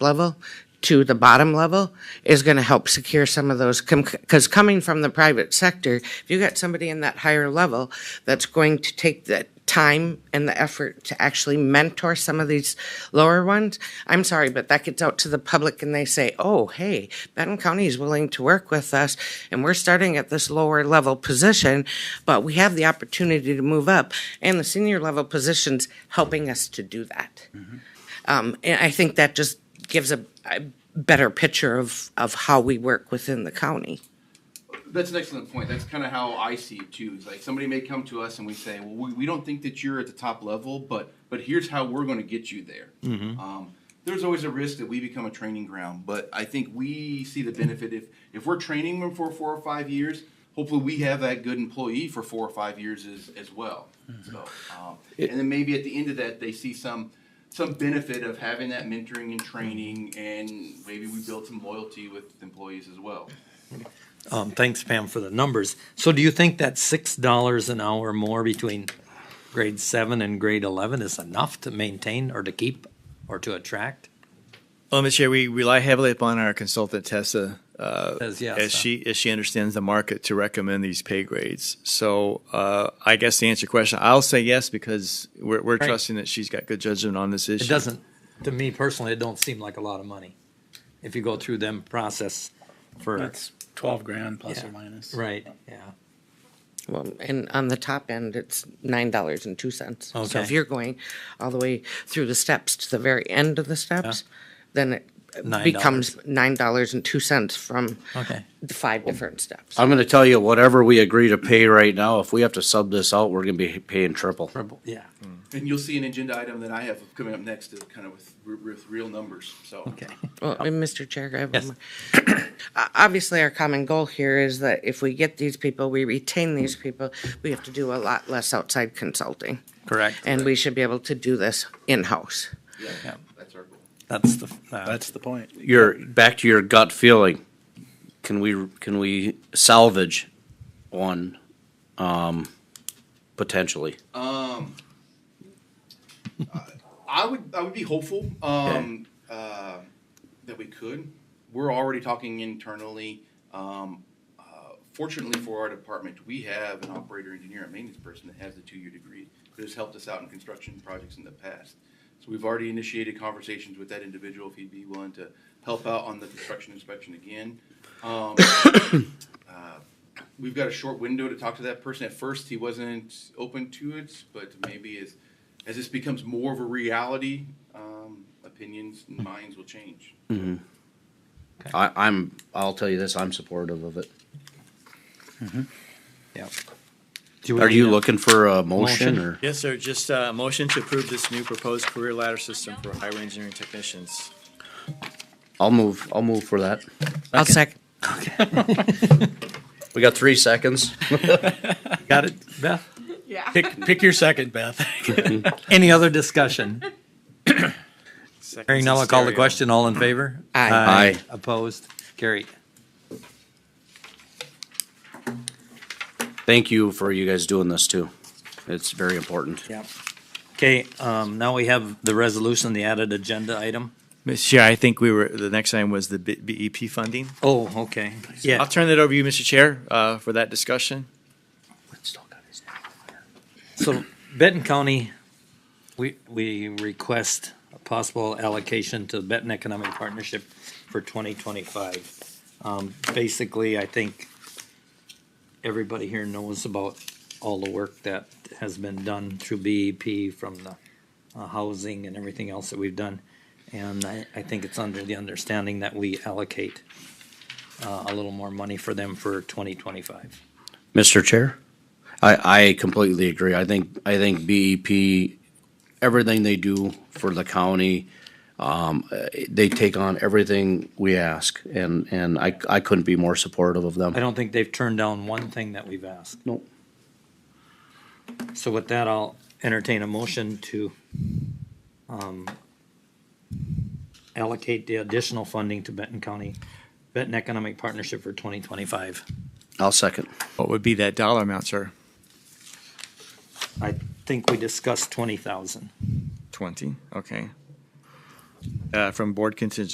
level to the bottom level is going to help secure some of those, because coming from the private sector, if you got somebody in that higher level that's going to take the time and the effort to actually mentor some of these lower ones, I'm sorry, but that gets out to the public and they say, oh, hey, Benton County is willing to work with us and we're starting at this lower level position, but we have the opportunity to move up. And the senior level position's helping us to do that. Um, and I think that just gives a, a better picture of, of how we work within the county. That's an excellent point. That's kind of how I see it too. It's like somebody may come to us and we say, "Well, we, we don't think that you're at the top level, but but here's how we're going to get you there." Um, there's always a risk that we become a training ground, but I think we see the benefit if if we're training them for four or five years. Hopefully, we have that good employee for four or five years as as well. So, um, and then maybe at the end of that, they see some some benefit of having that mentoring and training, and maybe we build some loyalty with employees as well. Um, thanks, Pam, for the numbers. So do you think that six dollars an hour more between grade seven and grade eleven is enough to maintain or to keep or to attract? Well, Mr. Chair, we rely heavily upon our consultant Tessa, uh, Says yes, as huh? she as she understands the market to recommend these pay grades. So, uh, I guess to answer your question, I'll say yes because we're, we're Right. trusting that she's got good judgment on this issue. It doesn't, to me personally, it don't seem like a lot of money. If you go through them process for, That's twelve grand plus Yeah. or minus. right, yeah. Well, and on the top end, it's nine dollars and two cents. So if Okay. you're going all the way through the steps to the very end of the steps, then it Nine becomes nine dollars and two cents from Okay. the five different steps. uh, I'm gonna tell you, whatever we agree to pay right now, if we have to sub this out, we're gonna be paying triple. Purple, Yeah, Mm. And you'll see an agenda item that I have coming up next, to kind of with, with real numbers, so. okay. Well, and Mr. Chair, I have one Yes. more. O- Obviously, our common goal here is that if we get these people, we retain these people, we have to do a lot less outside consulting. Correct. And we should be able to do this in-house. Yeah, that's our goal. That's the, uh, That's the point. Your, back to your gut feeling, can we, can we salvage one, um, potentially? I would, I would be hopeful, um, uh, that we could. We're already talking internally. Um, uh, fortunately for our department, we have an operator, engineer, and maintenance person that has a two-year degree that has helped us out in construction projects in the past. So we've already initiated conversations with that individual if he'd be willing to help out on the construction inspection again. Um, uh, we've got a short window to talk to that person. At first, he wasn't open to it, but maybe as as this becomes more of a reality, um, opinions and minds will change. I, I'm, I'll tell you this, I'm supportive of it. yeah. Are you looking for a motion Motion. or? Yes, sir. Just uh, a motion to approve this new proposed career ladder system for highway engineering technicians. I'll move, I'll move for that. I'll second. We got three seconds. Got it, Beth? Pick, pick your second, Beth. Any other discussion? Hearing none, I'll call the Stereo. question. All in favor? Aye. Aye. Opposed? Carried. Thank you for you guys doing this too. It's very important. Yep. Okay, um, now we have the resolution, the added agenda item. Mr. Chair, I think we were the next item was the B- BEP funding. Oh, okay. I'll Yeah, turn that over to you, Mr. Chair, uh, for that discussion. so Benton County, we, we request a possible allocation to Benton Economic Partnership for twenty twenty-five. Um, basically, I think everybody here knows about all the work that has been done through BEP from the uh, housing and everything else that we've done. And I, I think it's under the understanding that we allocate uh, a little more money for them for twenty twenty-five. Mr. Chair, I, I completely agree. I think, I think BEP, everything they do for the county, um, eh, they take on everything we ask and, and I, I couldn't be more supportive of I them. don't think they've turned down one thing that we've asked. Nope. So with that, I'll entertain a motion to um, allocate the additional funding to Benton County, Benton Economic Partnership for 2025. I'll second. What would be that dollar amount, sir? I think we discussed 20,000. 20, okay. Uh, From board contingent